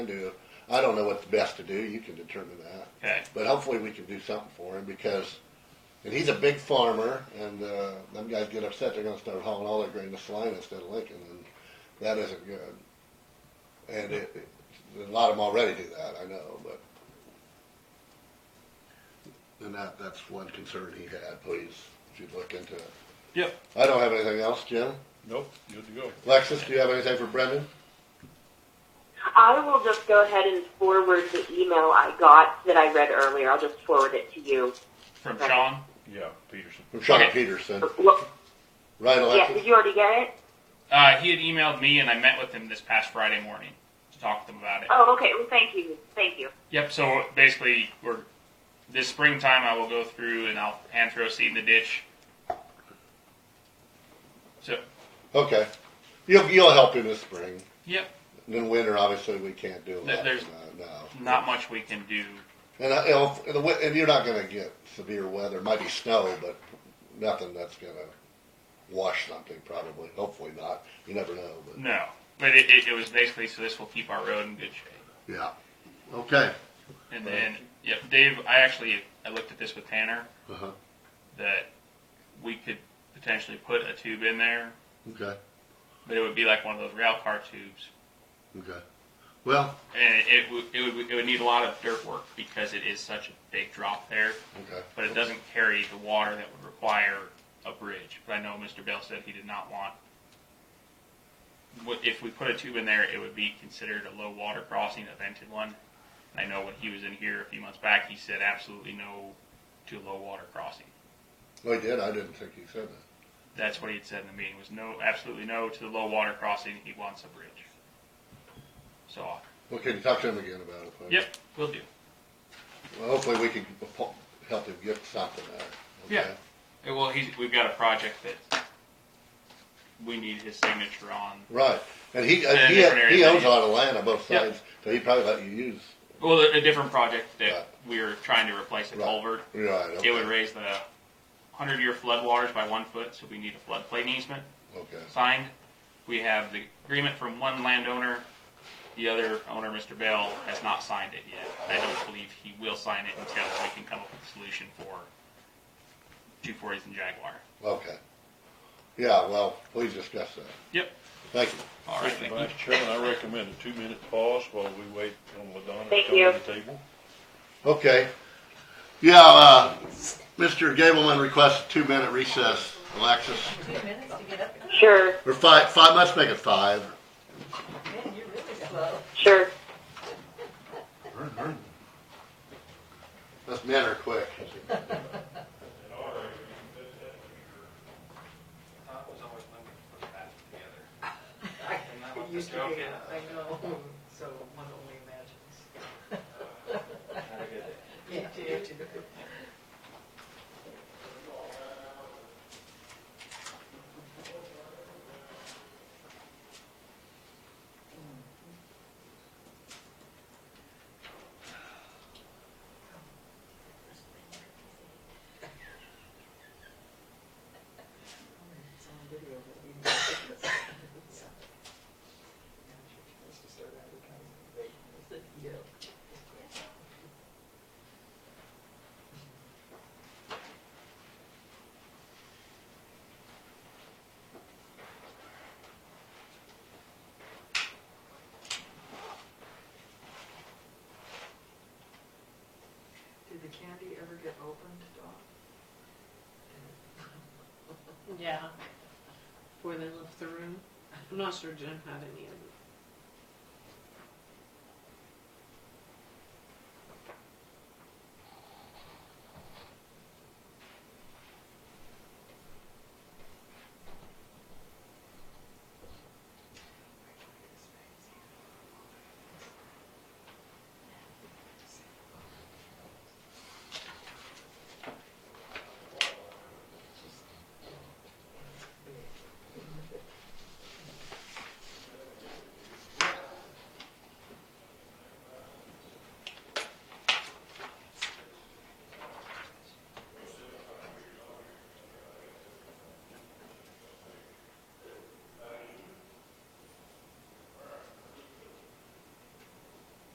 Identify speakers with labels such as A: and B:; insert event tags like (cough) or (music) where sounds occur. A: do. I don't know what's best to do. You can determine that.
B: Okay.
A: But hopefully we can do something for him because, and he's a big farmer, and uh, them guys get upset. They're going to start hauling all their grain to Saline instead of Lincoln, and that isn't good. And it, it, a lot of them already do that, I know, but. And that, that's one concern he had. Please, if you'd look into it.
B: Yep.
A: I don't have anything else, Jim.
C: Nope, good to go.
A: Lexus, do you have anything for Brendan?
D: I will just go ahead and forward the email I got that I read earlier. I'll just forward it to you.
B: From
D: Okay.
B: Sean.
C: Yeah, Peterson.
A: From Sean
B: Okay.
A: Peterson.
D: Well,
A: Right,
D: yeah,
A: Alexis?
D: did you already get it?
B: Uh, he had emailed me, and I met with him this past Friday morning to talk to them about it.
D: Oh, okay. Well, thank you. Thank you.
B: Yep. So basically, we're this springtime. I will go through and I'll hand throw seed in the ditch. So,
A: Okay. You'll, you'll help him this spring.
B: yep.
A: And then winter, obviously, we can't do a
B: There-
A: lot.
B: there's
A: for that, no.
B: Not much we can do.
A: And, I, you know, if- and, the, wi- and you're not going to get severe weather. It might be snow, but nothing that's going to wash something, probably. Hopefully not. You never know. But
B: No. But it, it, it was basically so this will keep our road in good shape.
A: Yeah. Okay.
B: And then, yep. Dave, I actually I looked at this with Tanner
A: Uh-huh.
B: that we could potentially put a tube in there,
A: Okay.
B: but it would be like one of those rail car tubes.
A: Okay. Well,
B: and it, would it would it would need a lot of dirt work because it is such a big drop there,
A: okay.
B: but it doesn't carry the water that would require a bridge. But I know Mr. Bell said he did not want. what- If we put a tube in there, it would be considered a low water crossing, a vented one. And I know when he was in here a few months back, he said absolutely no to low water crossing.
A: Well, he did. I didn't think he said that.
B: That's what he had said in the meeting was no, absolutely no to the low water crossing. He wants a bridge. So
A: Well, can you talk to him again about it, please?
B: yep, we'll do.
A: Well, hopefully we can po- help him get something out. Okay?
B: Yeah. Yeah, Well, he's, we've got a project that we need his signature on.
A: Right, and he uh,
B: And
A: he,
B: different
A: he
B: areas,
A: owns a
B: yeah.
A: lot of land on both
B: Yep.
A: sides, so he probably let you use.
B: Well, a a different project
A: Right.
B: that we are trying to replace a
A: Right.
B: culvert.
A: Right. Okay.
B: It would raise the hundred-year floodwaters by one foot, so we need a floodplain easement
A: okay.
B: signed. We have the agreement from one landowner. The other owner, Mr. Bell, has not signed it yet. I don't believe he will sign it until we can come up with a solution for two forties and Jaguar.
A: Okay. Yeah. Well, please discuss that.
B: Yep.
A: Thank you.
B: All right.
C: Mr.
B: Thank you.
C: Vice Chairman, I recommend a two-minute pause while we wait on LaDonna to
D: Thank
C: come
D: you.
C: to the table.
A: Okay. Yeah. Uh, Mr. Gableman requests a two-minute recess. Alexis,
E: Two minutes to get up.
D: Sure.
A: or five. Five. Let's make it five.
E: Man, you're really slow.
D: Sure.
A: Let's men are quick.
F: Todd was always limited to put that together.
E: I
F: And that was
E: it
F: the
E: used to
F: joke.
E: be, I know, (laughs) so one only imagines.
F: Had a good day.
E: Me too. It's on video, but you can see it. It's- it's just around the country. It's a- yeah. Did the candy ever get opened, Dawn?
G: Yeah. Before they left the room. I'm not sure Jen had any of them.